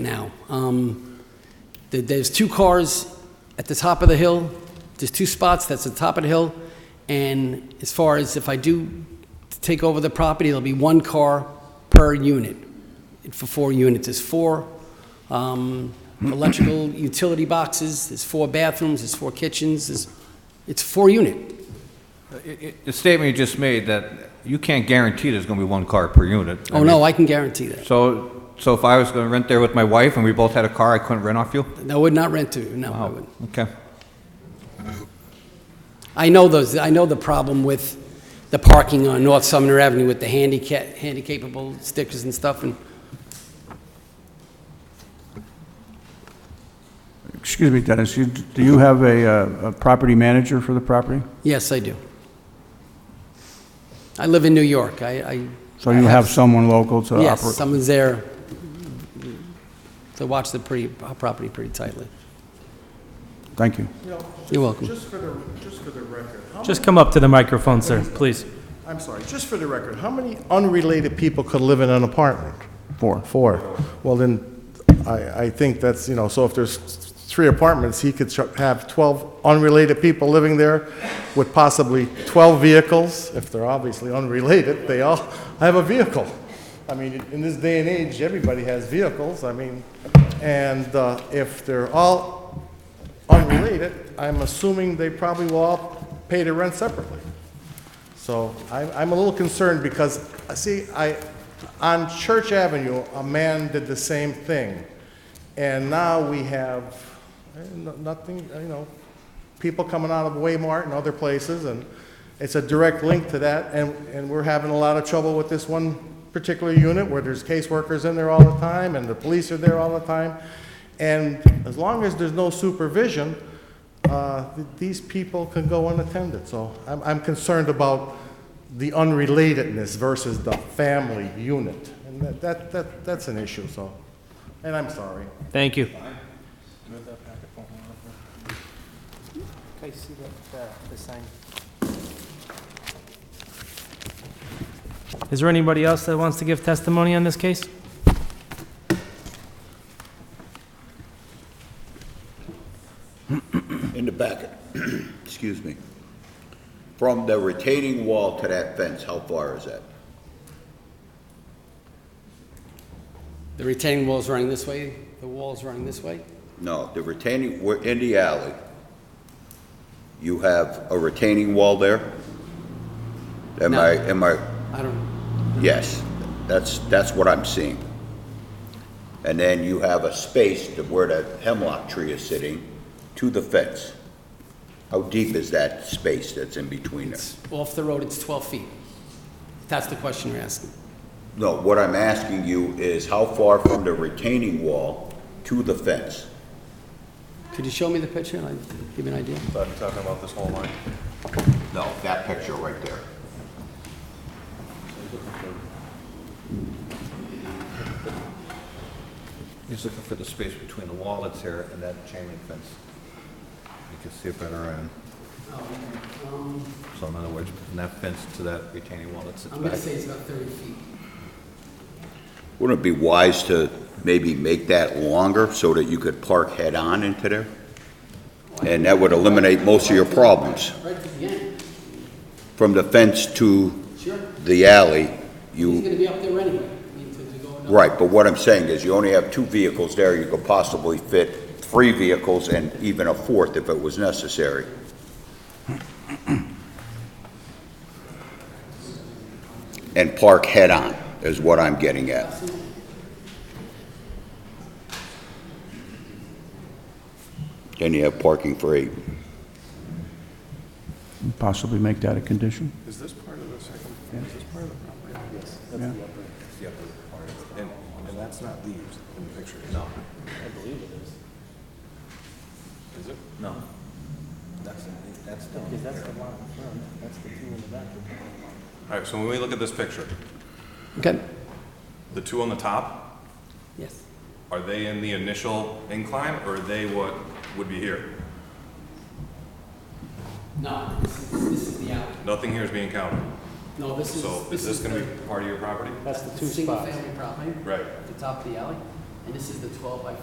now. Um, th- There's two cars at the top of the hill, there's two spots, that's the top of the hill, and as far as if I do take over the property, there'll be one car per unit, for four units, there's four um, electrical utility boxes, there's four bathrooms, there's four kitchens, there's- it's four unit. It- it- The statement you just made, that you can't guarantee there's going to be one car per unit. I Oh, mean, no, I can guarantee that. So, so if I was going to rent there with my wife and we both had a car, I couldn't rent off you? I would not rent to, no, I would. Okay. I know those, I know the problem with the parking on North Sumner Avenue with the handicap, handicapable stickers and stuff, and Excuse me, Dennis, you- do you have a, uh, a property manager for the property? yes, I do. I live in New York, I, I... So you I have someone local to operate? Yes, someone's there to watch the pretty, uh, property pretty tightly. Thank you. You're welcome. Just for the, just for the record, how Just come up to the microphone, sir, please. many- I'm sorry, just for the record, how many unrelated people could live in an apartment? Four. Four. Well, then, I, I think that's, you know, so if there's three apartments, he could ch- have 12 unrelated people living there with possibly 12 vehicles. If they're obviously unrelated, they all have a vehicle. I mean, in this day and age, everybody has vehicles, I mean, and uh, if they're all unrelated, I'm assuming they probably will all pay their rent separately. So I'm, I'm a little concerned because, uh, see, I, on Church Avenue, a man did the same thing. And now we have eh, no- nothing, you know, people coming out of Waymart and other places, and it's a direct link to that, and, and we're having a lot of trouble with this one particular unit where there's caseworkers in there all the time, and the police are there all the time. And as long as there's no supervision, uh, th- these people can go unattended. So I'm, I'm concerned about the unrelatedness versus the family unit. And that, that, that that's an issue, so, and I'm sorry. Thank you. Okay, see that, uh, the sign? Is there anybody else that wants to give testimony on this case? in the back, excuse me, from the retaining wall to that fence, how far is that? The retaining wall's running this way, the wall's running this way. No, the retaining, we're in the alley. You have a retaining wall there? Am I, No. am I, I don't, yes, that's, that's what I'm seeing. And then you have a space to where the hemlock tree is sitting to the fence. How deep is that space that's in between there? it's off the road, it's 12 feet. That's the question you're asking. No, what I'm asking you is how far from the retaining wall to the fence? Could you show me the picture and I'd give you an idea? No, that picture right there. He's looking for the space between the wall that's here and that chain link fence. You can see it better on, so in other words, from that fence to that retaining wall that sits I'm gonna back. say it's about 30 feet. Wouldn't it be wise to maybe make that longer so that you could park head-on into there? And that would eliminate most of your problems. Right to the end, From the fence to sure. the alley, He's you, gonna be up there anyway. I mean, to- to go another- right, but what I'm saying is you only have two vehicles there, you could possibly fit three vehicles and even a fourth if it was necessary. And park head-on is what I'm getting at. Then you have parking for eight. Possibly make that a condition? All right, so when we look at this picture, Okay, the two on the top, yes. are they in the initial incline or are they what would be here? No, this is, this is the alley. Nothing here is being counted. No, this is. So is this gonna be part of your property? That's the two spots. Single family property, Right. at the top of the alley. and this is the 12 by